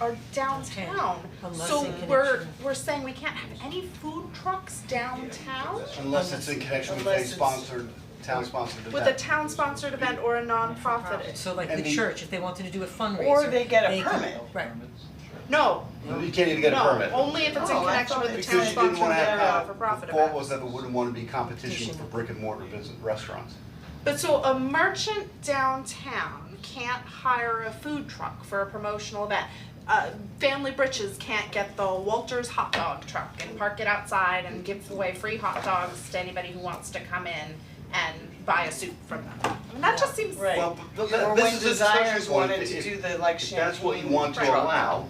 are downtown. Unless So in connection- we're, we're saying we can't have any food trucks downtown? Unless it's in connection with a Unless it's- sponsored, town-sponsored event. With a town sponsored event or a nonprofit? So like And the the- church, if they wanted to do a fundraiser. Or they get a can- permit. Right, No, You can't even get a no, permit. only if it's in Oh, I connection thought with the it- town Because you didn't sponsored wanna event or have, for the profit event. thought was that we wouldn't wanna be competition for Competition. brick and mortar business, restaurants. But so a merchant downtown can't hire a food truck for a promotional event. Uh, Family Britches can't get the Walters hot dog truck and park it outside and give away free hot dogs to anybody who wants to come in and buy a soup from them. I mean, that just seems. Right. Well, th- th- Or this when is a Desires discussion point. wanted to If- do the, like, If that's what you champagne want to truck. allow,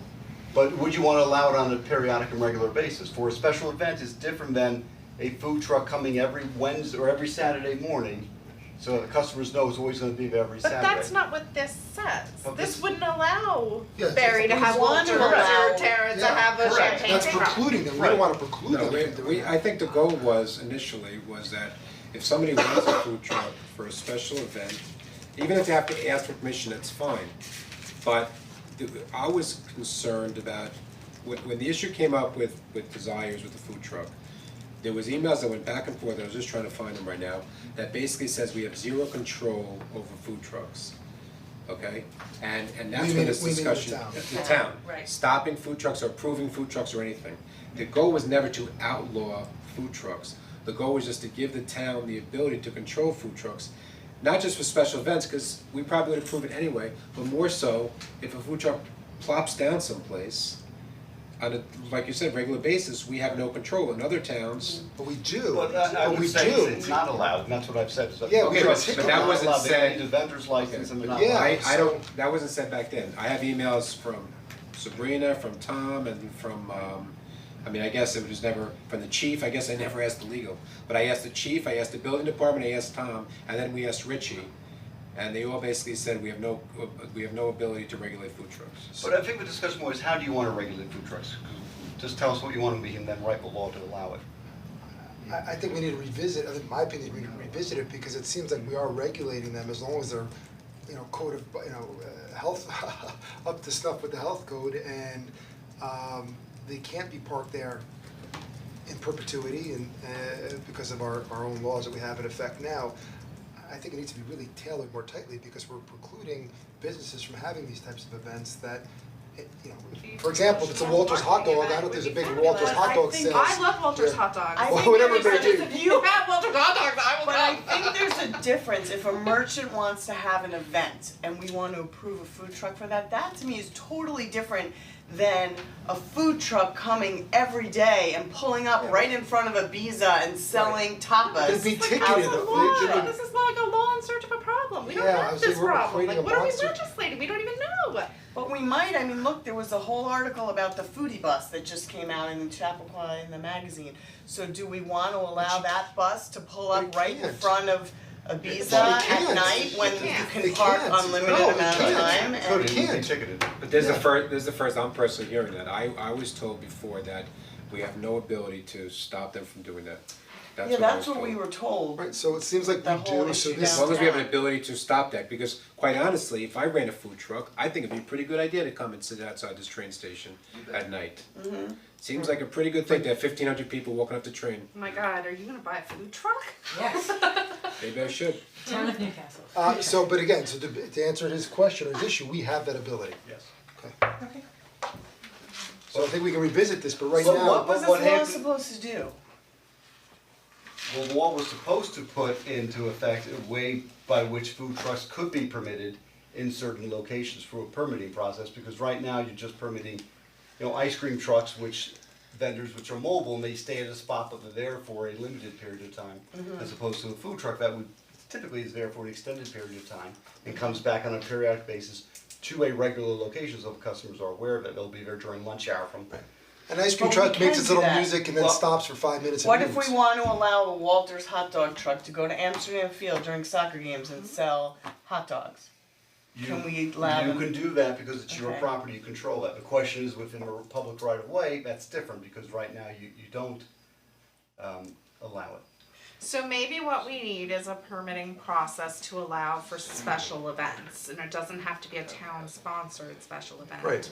but would you wanna allow it on a periodic and regular basis? For a special event is different than a food truck coming every Wednesday or every Saturday morning, so the customers know it's always gonna be there every But Saturday. that's not what this says. But This this- wouldn't allow Yeah, Barry to it's- have it's one to Walter allow- or Tara to Yeah, have a correct. champagne That's truck. precluding them, we Right. don't wanna preclude No, them we, from doing we, I think the goal was initially was that if somebody wants a food truck for a special event, even if they have to ask for permission, that's fine. But the, I was concerned about, when, when the issue came up with, with desires with the food truck, there was emails that went back and forth, I was just trying to find them right now, that basically says we have zero control over food trucks. Okay, and and that's We where mean- this we mean the discussion, town. the town, Right. stopping food trucks or approving food trucks or anything. The goal was never to outlaw food trucks, the goal was just to give the town the ability to control food trucks. Not just for special events, cause we probably would approve it anyway, but more so if a food truck plops down someplace on a, like you said, regular basis, we have no control, in other towns, But we do, But I I but would we say it's- do, it's not allowed, and that's what I've said, so. Yeah, we Okay, don't it's take not it. That wasn't allowed. They said- need a vendor's license and they're not Yeah. allowed. I I don't, that wasn't said back then, I have emails from Sabrina, from Tom, and from um, I mean, I guess it was never, from the chief, I guess I never asked the legal, but I asked the chief, I asked the building department, I asked Tom, and then we asked Richie. And they all basically said, we have no, we have no ability to regulate food trucks. uh, But I think the discussion was, how do you wanna regulate food trucks? Just tell us what you wanna be and then write the law to allow it. I I think we need to revisit, I think in my opinion, we need to revisit it because it seems like we are regulating them as long as they're, you know, code of, you know, uh, health, up to snuff with the health code and um they can't be parked there in perpetuity and uh because of our our own laws that we have in effect now. I think it needs to be really tailored more tightly because we're precluding businesses from having these types of events that, eh, you know, for example, if it's a Walter's hot dog, I don't think there's a big Walter's hot dog sales. I love Walter's Yeah. hot dogs. Well, whatever Barry Barry says, did. If you have Walter's hot dogs, I will But I come. think there's a difference, if a merchant wants to have an event and we want to approve a food truck for that, that to me is totally different than a food truck coming every day and pulling up right in front of a Biza and selling They'd be tapas. ticketed. out of though. the They'd- Law. they'd- This is like a law in search of a problem. We don't Yeah, I have was this like, we're problem. creating Like, a what are we monster. legislating? We don't even know. But we might, I mean, look, there was a whole article about the foodie bus that just came out in Chappaqua in the magazine. So do we want to allow that bus to pull up They right in can't. front of Ibiza Well, they at can't. night when They you can't. can They park can't. No, unlimited they amount of time can't. No, and? they It would can't. be ticketed. But there's the Yeah. first, there's the first, I'm personally hearing that, I I was told before that we have no ability to stop them from doing that. That's Yeah, what I that's was what told. we were told. Right, so it seems like The we whole do, so issue this, As down. long as we have an ability to stop that, because quite honestly, if I ran a food truck, I think it'd be a pretty good idea to come and sit outside this train station at night. Seems like a pretty good thing to have fifteen hundred people walking up the train, Oh my God, are you gonna buy a food truck? yes, maybe I should. town of Newcastle. uh, so, but again, so to, to answer his question or his issue, we have that ability. Yes. Okay. So I think we can revisit this, but right So now, What was But what this law happened- supposed to do? The law was supposed to put into effect a way by which food trucks could be permitted in certain locations through a permitting process, because right now you're just permitting, you know, ice cream trucks, which vendors which are mobile, and they stay at a spot but they're there for a limited period of time, as opposed to a food truck that would typically is there for an extended period of time and comes back on a periodic basis to a regular location, so the customers are aware of it, they'll be there during lunch hour from an ice But cream we truck makes can its do little that. music and then Well, stops for five minutes and What if moves. we want to allow a Walter's hot dog truck to go to Amsterdam Field during soccer games Mm-hmm. and sell hot dogs? You- Can we allow them- You can do that because it's your Okay. property, you control that. The question is within a public right of way, that's different because right now you you don't um allow it. So maybe what we need is a permitting process to allow for special events, and it doesn't have to be a town-sponsored special event. Right.